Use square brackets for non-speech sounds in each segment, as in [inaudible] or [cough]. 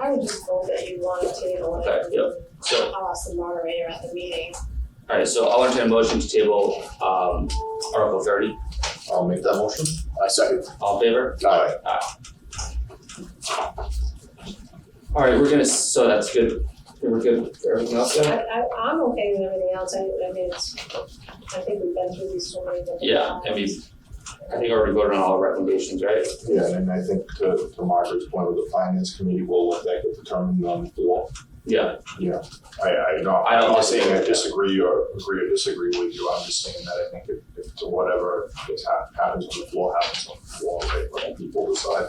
I would just vote that you want to table it. Okay, yep. So, I'll ask the uh, moderator at the meeting. alright, so I'll entertain a motion to table, um, Article thirty, I'll make that motion. I second. all in favor? Aye. Alright, we're gonna, so that's good, we're good for everything else I, then? I, I'm okay with everything else, I, I mean, it's, I think we've been through these so many different Yeah, I mean, times. I think I already voted on all the recommendations, right? Yeah, and I think to, to Margaret's point with the finance committee, we'll let that get determined on the floor. Yeah, I, I don't, I I'm don't not disagree saying I with that. disagree or agree or disagree with you, I'm just saying that I think if, if to whatever is hap- happens on the floor, happens on the floor, right? Let people decide.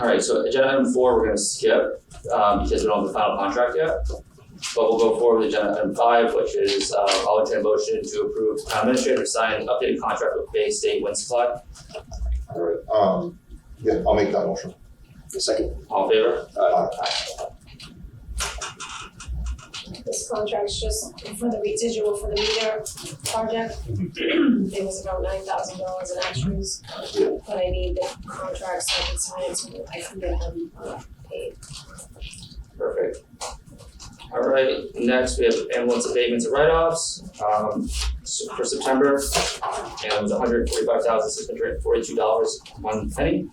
alright, so agenda item four, we're gonna skip, um, because we don't have the final contract yet. But we'll go forward with agenda item five, which is, uh, I'll entertain a motion to approve town administrator signed updated contract with Bay State Wind Supply, All right, um, yeah, I'll make that motion. Uh, Second. all in favor? Aye. This contract's just for the residual for the meter project. It was about nine thousand dollars in extras, Yeah. but I need the contracts so I can sign it so I can get them uh, paid. Perfect. All right, next we have ambulance abatements and write-offs, um, s- for September, and it was hundred forty-five thousand six hundred forty-two dollars, one penny.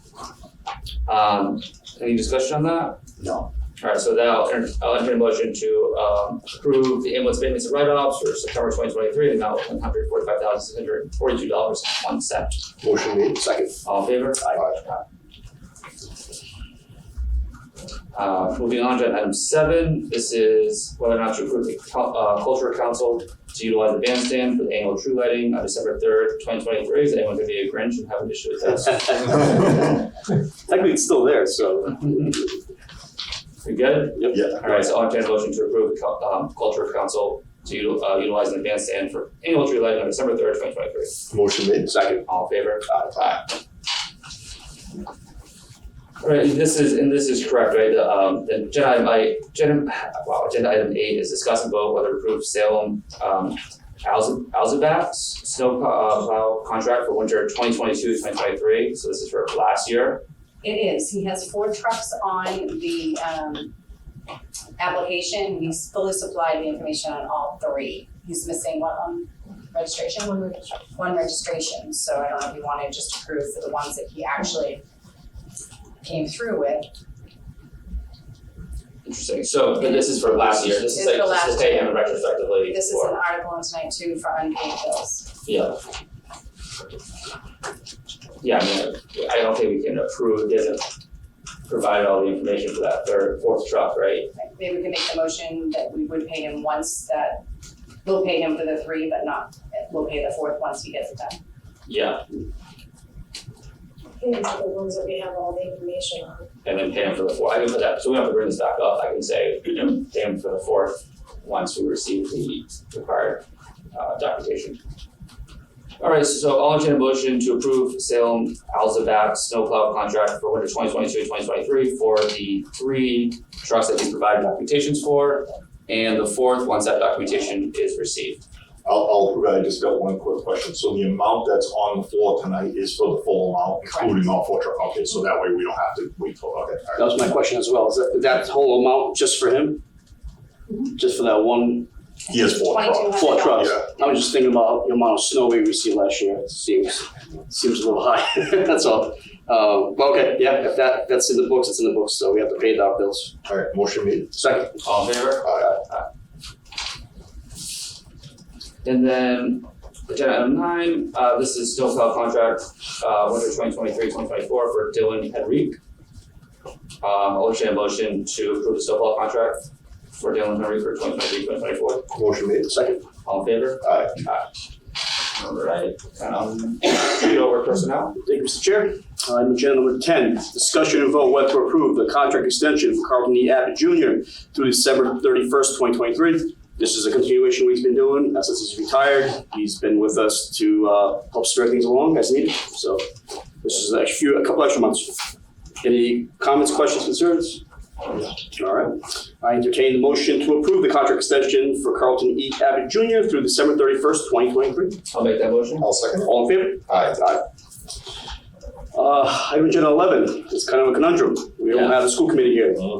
Um, any discussion on that? No. All right, so that'll, enter- I'll entertain a motion to, um, approve the ambulance abatements and write-offs for September twenty twenty-three, amount one hundred forty-five thousand six hundred forty-two dollars, one cent. Motion made, second. All in favor? Aye. Uh, moving on to item seven, this is whether or not to approve the cul- uh, cultural council to utilize the bandstand for the annual tree lighting on December third, twenty twenty-three. Is anyone gonna be a Grinch and have an issue with that? [laughs] Technically, it's still there, so. We good? Yeah. All right, so I'll entertain a motion to approve the cul- um, cultural council to util- uh, utilizing the bandstand for annual tree lighting on December third, twenty twenty-three. [laughs] Motion made, second. All in favor? Aye. Right, and this is, and this is correct, right, the, um, the agenda item, I, agenda, wow, agenda item eight is discuss and vote whether to approve Salem, um, Alza- Alzabat's snow pl- uh, plow contract for winter 2022-2023. so this is for last year. It is, he has four trucks on the um application, he's fully supplied the information on all three. He's missing one on registration, One registration. one registration, so I don't know if you wanna just approve for the ones that he actually came through with. Interesting, so, but this is for last year, this is It's like, for this is last paying year. him retrospectively This is for- an article on tonight too for unpaid bills. Yeah. Yeah, I mean, I don't think we can approve, he hasn't provided all the information for that third, fourth truck, right? Maybe we can make the motion that we would pay him once that, we'll pay him for the three, but not, we'll pay the fourth once he gets it done. Yeah, I think it's the ones that we have all the information on. and then pay him for the fourth. I can put that, so we don't have to bring this back up, I can say, you know, pay him for the fourth once we receive the required uh documentation. Alright, so I'll entertain a motion to approve Salem Alzabat snowplow contract for winter 2022-2023 for the three trucks that he's provided documentations for. And the fourth, once that documentation is received. I'll, I'll, I just got one quick question. So the amount that's on the floor tonight is for the full amount, Correct. including all four truck, okay, so that way we don't have to wait till, okay, That all right. was my question as well, is that, that whole amount just for him? Just for that one, He has four trucks. four trucks? Yeah. I was just thinking about the amount of snow we received last year, it seems, seems a little high, [laughs] that's all. Uh, but okay, yeah, if that, that's in the books, it's in the books, so we have to pay our bills. All right, motion made. Uh, Second, All in favor? Aye. And then agenda item nine, uh, this is snowplow contract, uh, winter twenty twenty-three, twenty twenty-four for Dylan Henrique. Um, I'll entertain a motion to approve the snowplow contract for Dylan Henrique for 2023, 2024. Motion made. second, All in favor? Aye. All right, um, read over personnel. thank you, Mr. Chair. Item agenda number ten, discussion and vote whether to approve the contract extension for Carlton E. Abbott Junior through December thirty-first, twenty twenty-three. This is a continuation we've been doing, uh, since he's retired, he's been with us to, uh, help spread things along as needed, so this is a few, a couple extra months. Any comments, questions, concerns? All right, I entertain the motion to approve the contract extension for Carlton E. Abbott Junior through December thirty-first, twenty twenty-three. I'll make that motion. I'll second. All in favor? Aye. Uh, item agenda eleven, it's kind of a conundrum. We don't Yeah. have a school committee here.